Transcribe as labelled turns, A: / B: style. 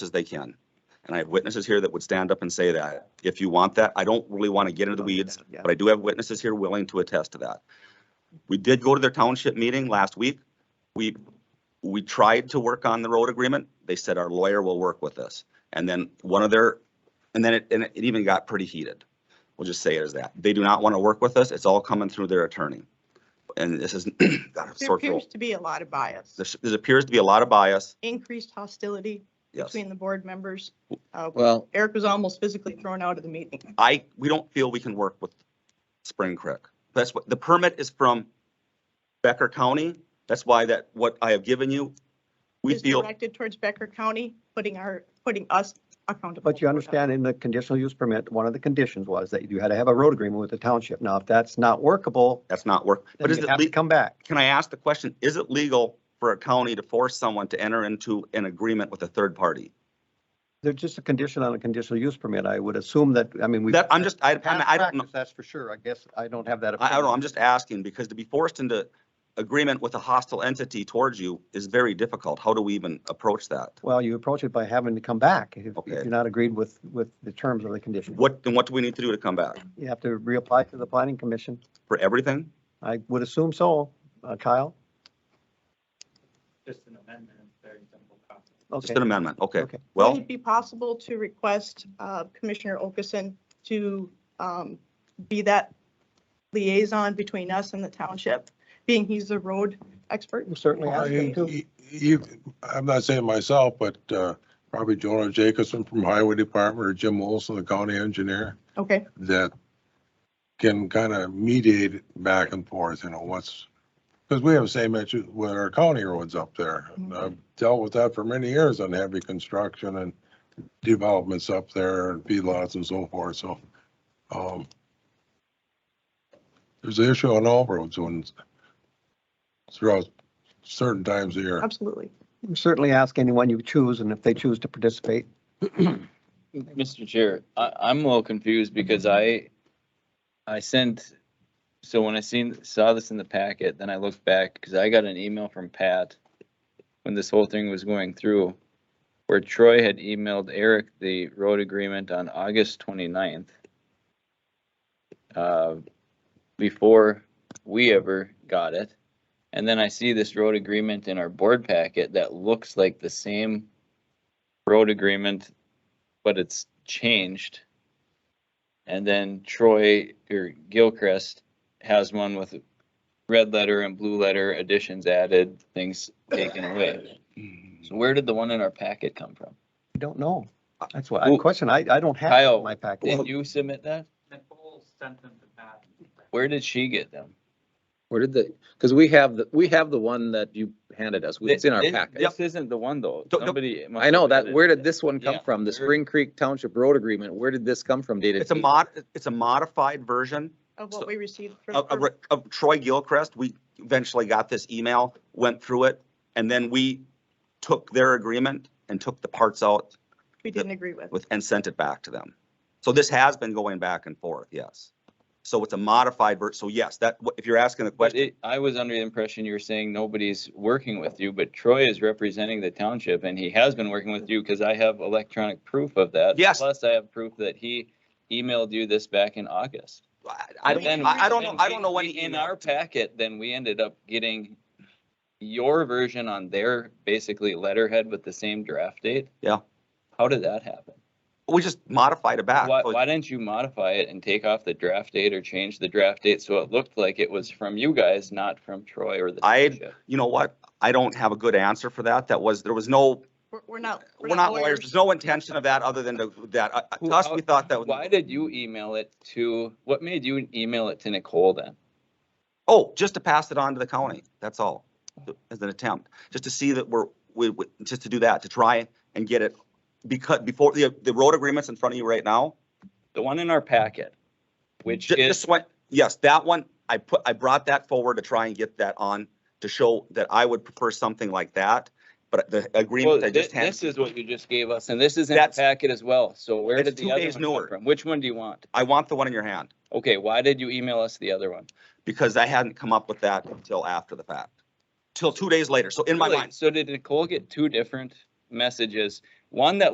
A: as they can. And I have witnesses here that would stand up and say that. If you want that, I don't really want to get into the weeds,
B: Yeah.
A: but I do have witnesses here willing to attest to that. We did go to their township meeting last week. We, we tried to work on the road agreement. They said our lawyer will work with us. And then one of their, and then it, and it even got pretty heated. We'll just say it as that. They do not want to work with us. It's all coming through their attorney. And this is, got a
C: There
A: sore
C: appears
A: throat.
C: to be a lot of bias,
A: There there appears to be a lot of bias,
C: increased hostility
A: yes.
C: between the board members. Uh,
D: Well,
C: Eric was almost physically thrown out of the meeting.
A: I, we don't feel we can work with Spring Creek. That's what, the permit is from Becker County. That's why that, what I have given you, we
C: Is
A: feel,
C: Directed towards Becker County, putting our, putting us accountable.
B: But you
C: for that.
B: understand in the conditional use permit, one of the conditions was that you had to have a road agreement with the township. Now, if that's not workable,
A: that's not work.
B: then
A: But is
B: you
A: it,
B: have to
A: le-
B: come back.
A: can I ask the question, is it legal for a county to force someone to enter into an agreement with a third party?
B: They're just a condition on a conditional use permit. I would assume that, I mean, we.
A: That, I'm just, I, I'm-
B: Past
A: I don't know.
B: practice, That's for sure. I guess I don't have that.
A: I, I don't know, I'm
B: opinion.
A: just asking because to be forced into agreement with a hostile entity towards you is very difficult. How do we even approach that?
B: Well, you approach it by having to come back if if
A: Okay.
B: you're not agreed with, with the terms of the condition.
A: What, and what do we need to do to come back?
B: You have to reapply to the planning commission.
A: For everything?
B: I would assume so, Uh, Kyle.
E: just an amendment, it's very simple process.
A: Just
B: Okay.
A: an amendment, okay.
B: Okay.
A: Well.
C: Would it be possible to request uh, Commissioner Okeson to um, be that liaison between us and the township, being he's the road expert?
B: We'll Certainly
F: Well,
B: ask them
F: You,
B: to.
F: you- you- I'm not saying myself, but uh, probably Jonah Jacobson from Highway Department or Jim Olson, the county engineer,
C: Okay,
F: that can kind of mediate back and forth, you know, what's, because we have the same issue with our county roads up there. And I've dealt with that for many years on heavy construction and developments up there and feedlots and so forth, so. um, There's an issue on all roads when throughout certain times of year.
C: absolutely.
B: We'll Certainly ask anyone you choose and if they choose to participate.
D: Mr. Chair, I, I'm a little confused because I, I sent, so when I seen, saw this in the packet, then I looked back, because I got an email from Pat when this whole thing was going through, where Troy had emailed Eric the road agreement on August 29th. uh, Before we ever got it. And then I see this road agreement in our board packet that looks like the same road agreement but it's changed. And then Troy or Gilchrist has one with red letter and blue letter additions added, things taken away. So where did the one in our packet come from?
B: I don't know. Uh, That's what, I
D: Well,
B: question, I, I don't have it
D: Kyle,
B: in my package.
D: Didn't you submit that?
E: Nicole sent them to Pat.
D: Where did she get them?
G: Where did the, because we have, the we have the one that you handed us. It's in our
D: This-
G: packet.
D: This isn't the one though.
A: Don't- don't-
D: Somebody. must
G: I know
D: have
G: that,
D: added
G: where
D: it.
G: did this one come
D: Yeah,
G: from? The
D: where-
G: Spring Creek Township Road Agreement, where did this come from dated?
A: It's a mod, it's a modified version
C: Of
A: So-
C: what we received
A: of,
C: from,
A: of- of Troy Gilchrist. We eventually got this email, went through it, and then we took their agreement and took the parts out
C: we didn't agree with.
A: with, and sent it back to them. So this has been going back and forth, yes. So it's a modified ver, so yes, that, if you're asking the
D: But
A: question,
D: it, I was under the impression you were saying nobody's working with you, but Troy is representing the township and he has been working with you because I have electronic proof of that.
A: Yes.
D: Plus I have proof that he emailed you this back in August.
A: I, I
D: And then-
A: don't, I I don't know, I don't know when.
D: we-
A: he
D: In
A: emailed.
D: our packet, then we ended up getting your version on their basically letterhead with the same draft date.
A: Yeah.
D: How did that happen?
A: We just modified it back.
D: Why,
A: So
D: why didn't you modify it and take off the draft date or change the draft date so it looked like it was from you guys, not from Troy or the
A: I-
D: township?
A: You know what? I don't have a good answer for that. That was, there was no,
C: We're- We're not.
A: we're not lawyers. There's no intention of that other than to- that. Uh, uh,
D: Who-
A: To us, we
D: how-
A: thought that was.
D: Why did you email it to, what made you email it to Nicole then?
A: Oh, just to pass it on to the county, that's all, as an attempt, just to see that we're, we, we- just to do that, to try and get it. Because before, the, the road agreement's in front of you right now,
D: The one in our packet, which
A: ju-
D: is,
A: just went, yes, that one, I put, I brought that forward to try and get that on, to show that I would prefer something like that, but the
D: well,
A: agreement I
D: thi-
A: just
D: this
A: handed,
D: is what you just gave us, and this is in the
A: That's-
D: packet as well. So where
A: It's
D: did
A: two
D: the other
A: days
D: one come
A: newer.
D: from? Which one do you want?
A: I want the one in your hand,
D: Okay, why did you email us the other one?
A: because I hadn't come up with that until after the fact, till two days later, so in my
D: Really?
A: mind.
D: So did Nicole get two different messages? One that